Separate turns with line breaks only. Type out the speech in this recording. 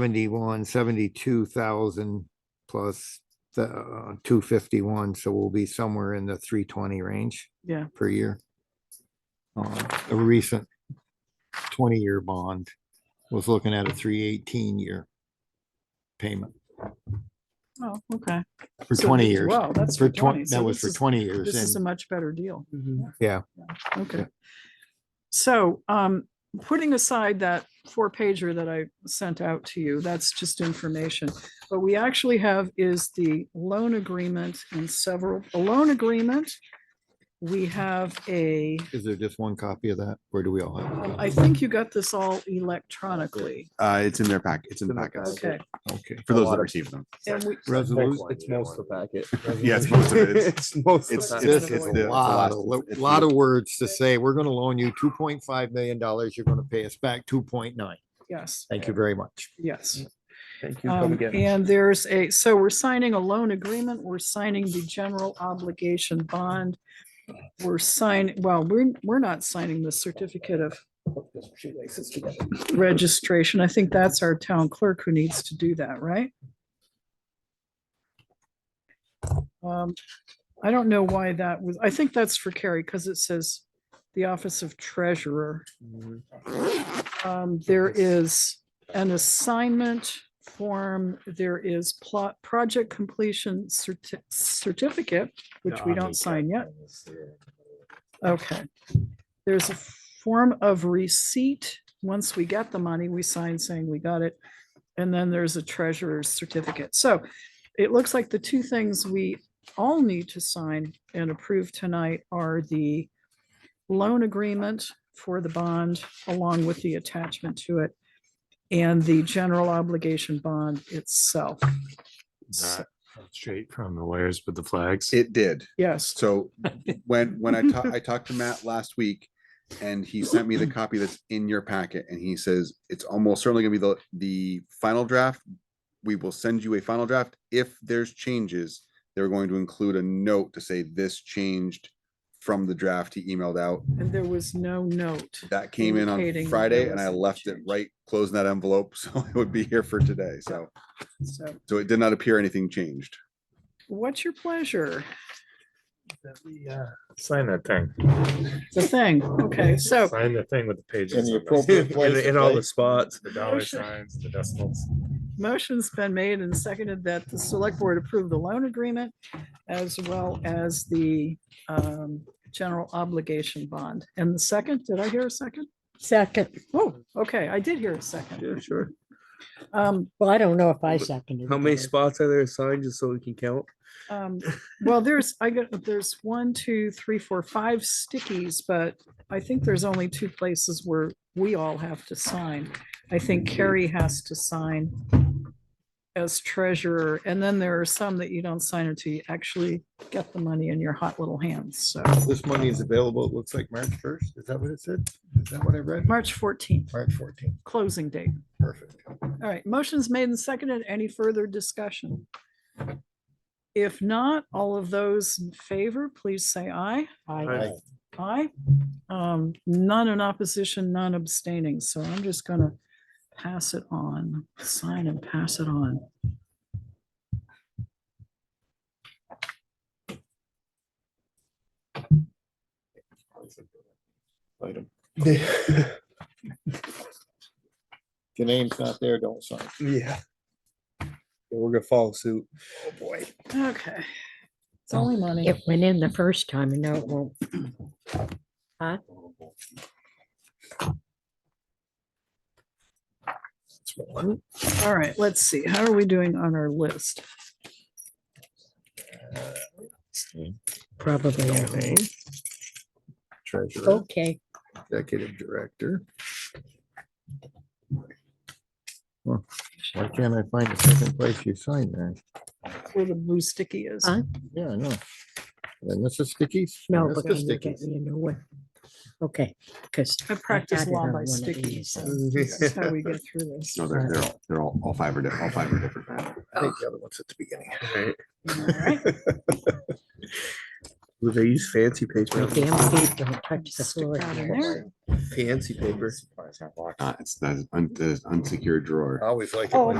seventy-one, seventy-two thousand plus the uh, two fifty-one, so we'll be somewhere in the three twenty range
Yeah,
per year. Uh, A recent twenty-year bond was looking at a three eighteen year payment
oh, okay.
for
So
twenty
th-
years.
Wow, that's
For
for
twenty,
twenty.
that
So
was
this
for
is-
twenty years.
This is a
and-
much better deal.
Yeah.
Okay.
Yeah.
So, um, putting aside that four pager that I sent out to you, that's just information. What we actually have is the loan agreement and several, a loan agreement. We have a,
Is there just one copy of that? Where do we all have?
um,
it?
I think you got this all electronically.
Uh, it's in their pack, it's in the packets,
Okay.
Okay.
for those
lot
that
of-
received them.
And we,
Resolution.
It's most of the packet.
Yeah, it's most of it. It's-
It's most
It's,
of
That's
This
it.
it's,
is
another
a
one.
it's the.
lot, of-
a
a lot of words to say. We're gonna loan you two point five million dollars. You're gonna pay us back two point nine.
yes,
Thank you very much.
yes.
Thank you. Come
Um,
again.
And there's a, so we're signing a loan agreement, we're signing the general obligation bond. We're signing, well, we're, we're not signing the certificate of registration. I think that's our town clerk who needs to do that, right? Um, I don't know why that was, I think that's for Carrie, because it says the Office of Treasurer.
Mm-hmm.
Um, there is an assignment form, there is plot, project completion certi- certificate, which we don't sign yet. Okay. There's a form of receipt. Once we get the money, we sign saying we got it. And then there's a treasurer's certificate. So it looks like the two things we all need to sign and approve tonight are the loan agreement for the bond along with the attachment to it and the general obligation bond itself. So-
Straight from the lawyers with the flags.
It did.
Yes,
So when, when I talked, I talked to Matt last week and he sent me the copy that's in your packet and he says, it's almost certainly gonna be the, the final draft. We will send you a final draft. If there's changes, they're going to include a note to say this changed from the draft he emailed out.
and there was no note.
That came in
Indicating that
on Friday
there
and I
was a
left it
change.
right, closing that envelope. So it would be here for today. So,
So
so it did not appear anything changed.
what's your pleasure?
Sign that thing.
The thing, okay, so
Sign the thing with the pages.
In the
on it.
appropriate place
In
to
all the
place.
spots, the dollar
Motion.
signs, the decimals.
motion's been made and seconded that the select board approve the loan agreement as well as the um, general obligation bond. And the second, did I hear a second?
Second,
Oh, okay, I did hear a second.
Yeah, sure.
Um,
well, I don't know if I
But
seconded.
How many
that.
spots are there assigned just so we can count?
um, Well, there's, I got, there's one, two, three, four, five stickies, but I think there's only two places where we all have to sign. I think Carrie has to sign as treasurer, and then there are some that you don't sign until you actually get the money in your hot little hands, so.
This money is available, it looks like March first. Is that what it said? Is that what I read?
March fourteenth,
March fourteenth,
closing date.
perfect.
All right, motion's made and seconded. Any further discussion? If not, all of those in favor, please say aye.
I-
Aye. Um, none in opposition, none abstaining, so I'm just gonna pass it on, sign and pass it on.
If your name's not there, don't sign.
Yeah. We're gonna follow suit. Oh, boy.
Okay.
oh.
It's only money.
It went in the first time and now it won't.
All right, let's see. How are we doing on our list?
Probably. not.
Treasurer,
Okay,
executive director. Huh, Why can't I find the second place you signed there?
Where the blue sticky is?
Huh?
Yeah, I know. And this is stickies?
no,
This
but
is
can you get
stickies.
me a new one? Okay, because.
I practice law by stickies. so this is How we get through this.
No, they're, they're all, they're all, all five are, di- all five are different. Matt.
I think the other one's at the beginning.
All right.
They use fancy
My
paper.
damn feet don't touch the
Stick
floor.
that in
here.
there.
Fancy paper.
Supplies, not boxes.
Uh, it's, that's un- that is unsecured drawer.
I always like it
Oh,
when